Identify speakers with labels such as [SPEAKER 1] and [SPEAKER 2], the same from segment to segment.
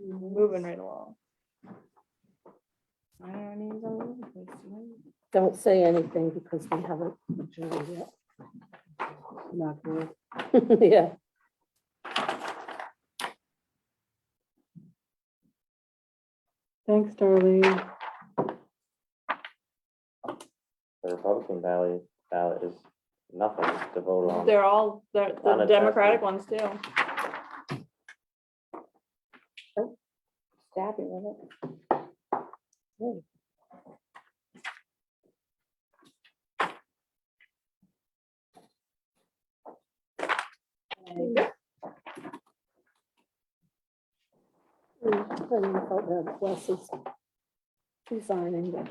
[SPEAKER 1] Moving right along. I don't need to all over the place, you know?
[SPEAKER 2] Don't say anything because we haven't adjourned yet. Not good. Yeah. Thanks, Darlene.
[SPEAKER 3] The Republican ballot, ballot is nothing to vote on.
[SPEAKER 1] They're all, they're the
[SPEAKER 3] Unattached.
[SPEAKER 1] Democratic ones too. Stabby with it.
[SPEAKER 2] And Hmm, I felt that Wes is resigning, but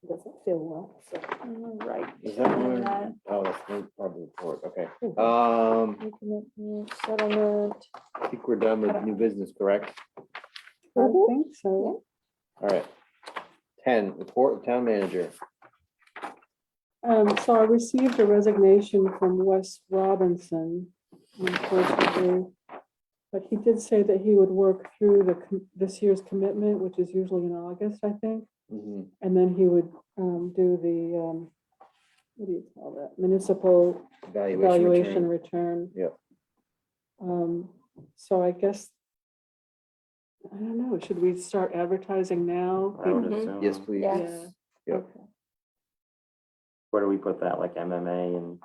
[SPEAKER 2] he doesn't feel well, so.
[SPEAKER 1] All Right.
[SPEAKER 4] Is that
[SPEAKER 1] and
[SPEAKER 4] where-
[SPEAKER 1] that
[SPEAKER 4] Oh, that's the public report, okay.
[SPEAKER 2] Mhm.
[SPEAKER 4] Um,
[SPEAKER 1] recommitment, Settlement.
[SPEAKER 4] I think we're done with new business, correct?
[SPEAKER 2] I
[SPEAKER 5] think so.
[SPEAKER 4] All right. Ten, report of town manager.
[SPEAKER 5] Um, so I received a resignation from Wes Robinson, unfortunately. But he did say that he would work through the, com- this year's commitment, which is usually in August, I think.
[SPEAKER 4] Mhm.
[SPEAKER 5] And then he would, um, do the, um, what do you call that? Municipal
[SPEAKER 4] Evaluation.
[SPEAKER 5] valuation
[SPEAKER 4] return.
[SPEAKER 5] return.
[SPEAKER 4] Yep.
[SPEAKER 5] Um, so I guess, I don't know, should we start advertising now?
[SPEAKER 3] I would
[SPEAKER 1] Mhm.
[SPEAKER 3] assume.
[SPEAKER 4] Yes, please.
[SPEAKER 1] Yeah.
[SPEAKER 5] Yeah.
[SPEAKER 4] Yep.
[SPEAKER 5] Okay.
[SPEAKER 3] Where do we put that, like MMA and,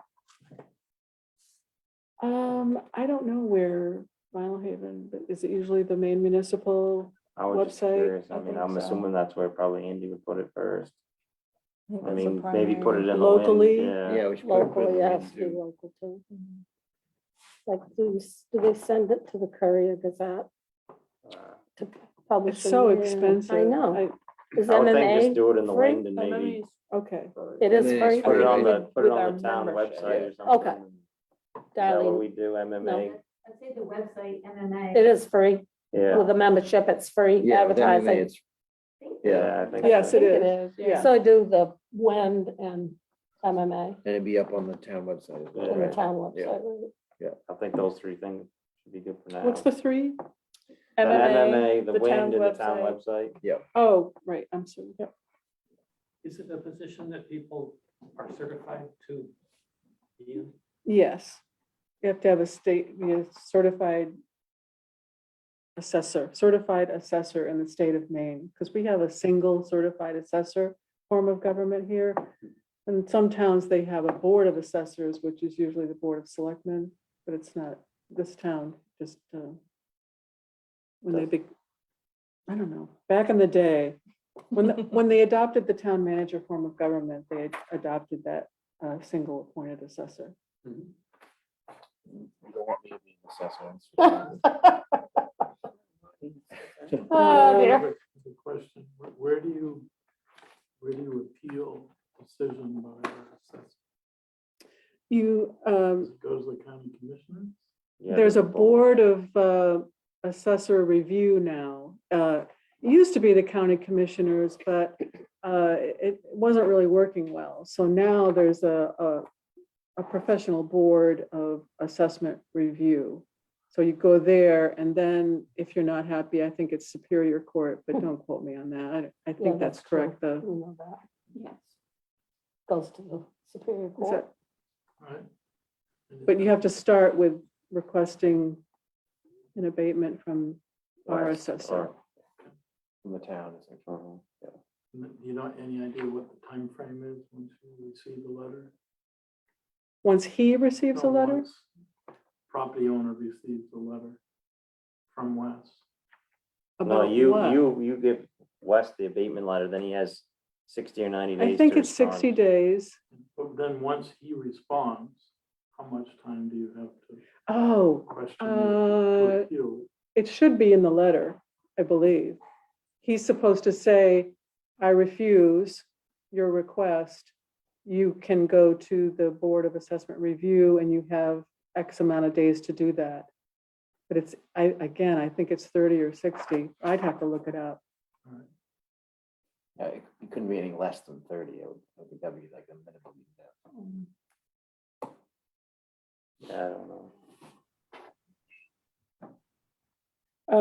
[SPEAKER 5] Um, I don't know where Mile Haven, but is it usually the main municipal?
[SPEAKER 3] I was just
[SPEAKER 5] Website,
[SPEAKER 3] curious,
[SPEAKER 5] I
[SPEAKER 3] I mean,
[SPEAKER 5] think
[SPEAKER 3] I'm
[SPEAKER 5] so.
[SPEAKER 3] assuming that's where probably Andy would put it first.
[SPEAKER 1] think
[SPEAKER 3] I
[SPEAKER 1] that's the
[SPEAKER 3] mean, maybe put it
[SPEAKER 1] primary.
[SPEAKER 3] in the wind,
[SPEAKER 5] Locally?
[SPEAKER 3] Yeah,
[SPEAKER 4] Yeah, we should. put it- put it
[SPEAKER 2] Locally,
[SPEAKER 4] in the
[SPEAKER 2] yeah,
[SPEAKER 4] link
[SPEAKER 2] be
[SPEAKER 4] too.
[SPEAKER 2] local too. Like, do, you s- do they send it to the Courier Gazette
[SPEAKER 3] Uh,
[SPEAKER 2] to publish?
[SPEAKER 5] It's
[SPEAKER 2] in
[SPEAKER 5] so
[SPEAKER 2] there?
[SPEAKER 5] expensive.
[SPEAKER 2] I know. Is
[SPEAKER 3] I would think just
[SPEAKER 2] MMA?
[SPEAKER 3] do it in the
[SPEAKER 2] free?
[SPEAKER 3] wind and
[SPEAKER 1] But let
[SPEAKER 3] maybe
[SPEAKER 1] me
[SPEAKER 5] Okay,
[SPEAKER 2] It is
[SPEAKER 4] And
[SPEAKER 2] free.
[SPEAKER 4] then it's free,
[SPEAKER 3] put it on
[SPEAKER 4] right?
[SPEAKER 3] the, put it
[SPEAKER 1] With our
[SPEAKER 3] on the town
[SPEAKER 1] membership.
[SPEAKER 3] website or
[SPEAKER 2] Yeah.
[SPEAKER 3] something.
[SPEAKER 2] Okay.
[SPEAKER 3] Is that what
[SPEAKER 2] Darlene.
[SPEAKER 3] we do, MMA?
[SPEAKER 6] I'd say the website, MMA.
[SPEAKER 2] It is free.
[SPEAKER 3] Yeah,
[SPEAKER 2] With a membership, it's free
[SPEAKER 4] Yeah, with MMA,
[SPEAKER 2] advertising.
[SPEAKER 4] it's, yeah,
[SPEAKER 3] yeah, I think.
[SPEAKER 5] Yes,
[SPEAKER 3] so.
[SPEAKER 5] it
[SPEAKER 1] think
[SPEAKER 5] is.
[SPEAKER 1] yeah.
[SPEAKER 2] So I do the WEND and MMA
[SPEAKER 4] and it'd be up on the town website. as well,
[SPEAKER 2] on the
[SPEAKER 4] right?
[SPEAKER 2] town
[SPEAKER 4] Yeah.
[SPEAKER 2] website. right?
[SPEAKER 3] I think those three things should be good for now.
[SPEAKER 5] what's the three?
[SPEAKER 3] The
[SPEAKER 1] MMA,
[SPEAKER 3] MMA, the
[SPEAKER 1] the town
[SPEAKER 3] wind and the town
[SPEAKER 1] website.
[SPEAKER 3] website.
[SPEAKER 5] Oh, right, I'm sorry. Yep.
[SPEAKER 7] Is it a position that people are certified to be in?
[SPEAKER 5] Yes, you have to have a state, you know, certified assessor, certified assessor in the state of Maine, because we have a single certified assessor form of government here. And some towns, they have a board of assessors, which is usually the board of selectmen, but it's not, this town just, uh, when they big, I don't know, back in the day, when, the- when they adopted the town manager form of government, they had adopted that uh, single appointed assessor.
[SPEAKER 4] You don't want me to be an assessor, that's for sure.
[SPEAKER 1] Uh,
[SPEAKER 5] Uh,
[SPEAKER 2] Oh,
[SPEAKER 7] I
[SPEAKER 2] dear.
[SPEAKER 7] have a a question. Where- Where do you, where do you appeal decision by our assessor?
[SPEAKER 5] You, um,
[SPEAKER 7] Does it go to the county commissioner?
[SPEAKER 3] Yeah,
[SPEAKER 5] there's a
[SPEAKER 3] the
[SPEAKER 5] board of uh, assessor review now. Uh, It used to be the county commissioners, but uh, it wasn't really working well. So now there's a, a, a professional board of assessment review. So you go there and then if you're not happy, I think it's Superior Court, but don't quote me on that. I I
[SPEAKER 2] Hmm. Yeah,
[SPEAKER 5] think that's
[SPEAKER 2] that's true.
[SPEAKER 5] correct, though.
[SPEAKER 2] You know that.
[SPEAKER 1] Yes.
[SPEAKER 2] Goes to the Superior
[SPEAKER 5] Is
[SPEAKER 2] Court.
[SPEAKER 5] that-
[SPEAKER 7] Right? And
[SPEAKER 5] But you have to start with requesting an abatement from our
[SPEAKER 3] last-
[SPEAKER 5] assessor.
[SPEAKER 4] From the town, it's like,
[SPEAKER 3] or- mhm.
[SPEAKER 7] Do you know any idea what the time frame is once you receive the letter?
[SPEAKER 5] Once he receives a
[SPEAKER 7] No,
[SPEAKER 5] letter,
[SPEAKER 7] once Property owner receives the letter from Wes.
[SPEAKER 3] No,
[SPEAKER 5] about
[SPEAKER 3] you,
[SPEAKER 5] what?
[SPEAKER 3] you, you give Wes the abatement letter, then he has sixty or ninety days.
[SPEAKER 5] I think
[SPEAKER 3] to
[SPEAKER 5] it's sixty
[SPEAKER 3] respond.
[SPEAKER 5] days.
[SPEAKER 7] But then once he responds, how much time do you have to
[SPEAKER 5] Oh,
[SPEAKER 7] question? it
[SPEAKER 5] uh,
[SPEAKER 7] to appeal?
[SPEAKER 5] it should be in the letter, I believe. He's supposed to say, I refuse your request. You can go to the Board of Assessment Review and you have X amount of days to do that. But it's, I, again, I think it's thirty or sixty. I'd have to look it up.
[SPEAKER 4] yeah, It it couldn't be any less than thirty, I would, I think that'd be like a minimum.
[SPEAKER 3] Yeah, Hmm. I don't know.